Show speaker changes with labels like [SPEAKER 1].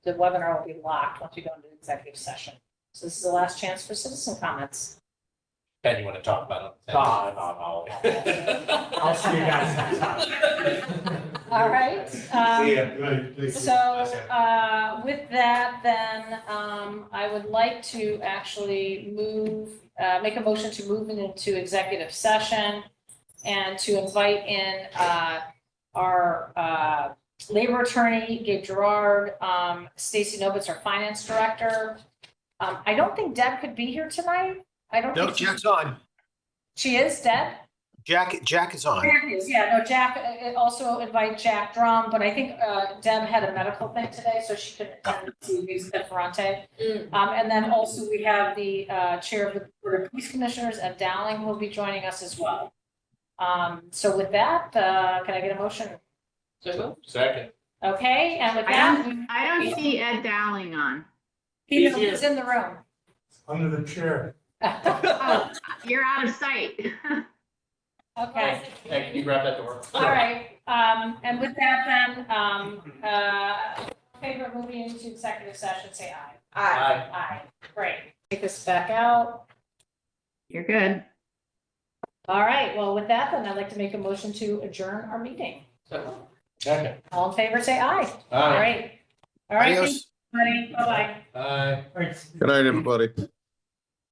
[SPEAKER 1] the webinar will be locked once we go into executive session. So this is the last chance for citizen comments.
[SPEAKER 2] Ben, you want to talk about it?
[SPEAKER 3] God.
[SPEAKER 2] I'll-
[SPEAKER 3] I'll see you guys next time.
[SPEAKER 1] All right. um,
[SPEAKER 4] See ya. Good. Thank you.
[SPEAKER 1] So, uh, with that, then, um, I would like to actually move, uh, make a motion to move into executive session and to invite in, uh, our, uh, labor attorney, Gabe Gerard, um, Stacy Novitz, our finance director. Um, I don't think Deb could be here tonight. I don't
[SPEAKER 5] No,
[SPEAKER 1] think she-
[SPEAKER 5] Jack's on.
[SPEAKER 1] she is, Deb?
[SPEAKER 5] Jack, Jack is on.
[SPEAKER 1] Jack is, yeah, no, Jack, uh, uh, also invite Jack Drum, but I think uh, Deb had a medical thing today, so she couldn't attend to Ms. Ferrante. Um, and then also we have the uh, Chair of the Board of Police Commissioners, Ed Dowling, will be joining us as well. Um, so with that, uh, can I get a motion?
[SPEAKER 2] Second.
[SPEAKER 1] Okay, and with
[SPEAKER 6] I
[SPEAKER 1] that,
[SPEAKER 6] I don't see Ed Dowling on.
[SPEAKER 1] he is in the room.
[SPEAKER 3] Under the chair.
[SPEAKER 6] Oh, You're out of sight.
[SPEAKER 1] Okay.
[SPEAKER 2] Hey, can you grab that door?
[SPEAKER 1] All right, um, and with that then, um, uh, favorite movie into executive session, say aye.
[SPEAKER 2] Aye.
[SPEAKER 1] Aye, great. Take this back out.
[SPEAKER 6] You're good.
[SPEAKER 1] All right, well, with that, then I'd like to make a motion to adjourn our meeting.
[SPEAKER 2] Second.
[SPEAKER 1] All in favor, say aye. All
[SPEAKER 2] Aye.
[SPEAKER 1] right. All right,
[SPEAKER 5] Adios.
[SPEAKER 1] thanks, everybody. Bye-bye.
[SPEAKER 2] Aye.
[SPEAKER 3] Thanks.
[SPEAKER 7] Good night, everybody.